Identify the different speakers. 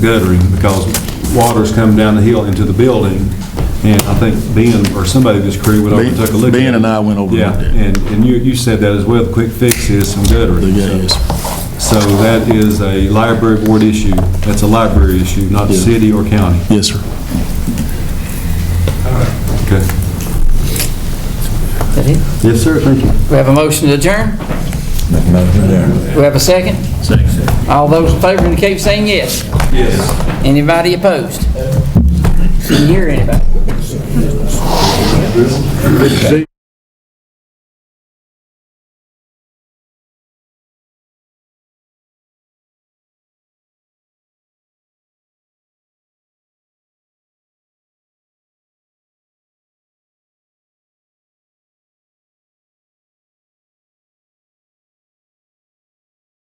Speaker 1: guttering because water's coming down the hill into the building. And I think Ben or somebody of his crew went over and took a look. at
Speaker 2: Ben
Speaker 1: it.
Speaker 2: and I went over and
Speaker 1: Yeah,
Speaker 2: looked at it.
Speaker 1: and, and you, you said that as well, the quick fix is some guttering.
Speaker 2: Yeah, yes.
Speaker 1: So that is a library board issue. That's a library issue, not
Speaker 2: Yeah.
Speaker 1: city or county.
Speaker 2: Yes, sir.
Speaker 1: Okay.
Speaker 3: That it?
Speaker 1: Yes, sir, thank you.
Speaker 3: We have a motion to adjourn? We have a second? Second. All those in favor indicate by saying yes. Yes. Anybody opposed? Didn't hear anybody.